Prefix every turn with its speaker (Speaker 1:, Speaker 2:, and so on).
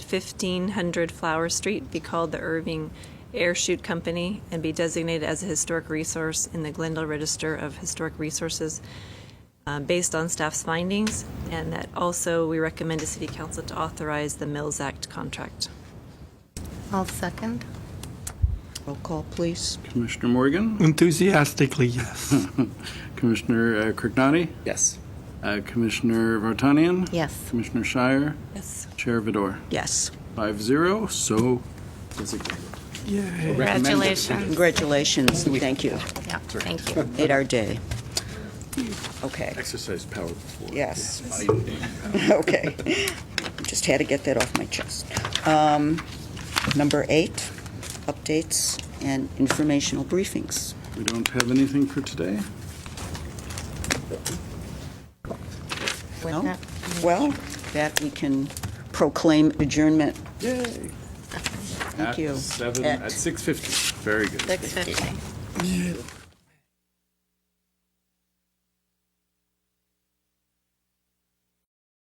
Speaker 1: 1500 Flower Street be called the Irving Air Shoot Company and be designated as a historic resource in the Glendale Register of Historic Resources uh, based on staff's findings, and that also we recommend to City Council to authorize the Mills Act contract.
Speaker 2: I'll second.
Speaker 3: Roll call, please.
Speaker 4: Commissioner Morgan,
Speaker 5: Enthusiastically, yes.
Speaker 4: Commissioner uh, Crignani,
Speaker 6: Yes.
Speaker 4: uh, Commissioner Vartanian.
Speaker 2: Yes.
Speaker 4: Commissioner Shire,
Speaker 1: Yes.
Speaker 4: Chair Vidor.
Speaker 3: Yes.
Speaker 4: Five zero, so designated.
Speaker 5: Yay.
Speaker 4: Congratulations.
Speaker 3: Congratulations, and thank you.
Speaker 2: Yeah, thank you.
Speaker 3: Made our day. Okay,
Speaker 4: Exercise power before.
Speaker 3: yes. Okay. Just had to get that off my chest. Um, Number eight, updates and informational briefings.
Speaker 4: We don't have anything for today.
Speaker 3: No?
Speaker 2: With that,
Speaker 3: Well, that we can proclaim adjournment.
Speaker 4: Yay.
Speaker 3: Thank you.
Speaker 4: At seven,
Speaker 3: At-
Speaker 4: at 6:50. Very good.
Speaker 2: 6:50.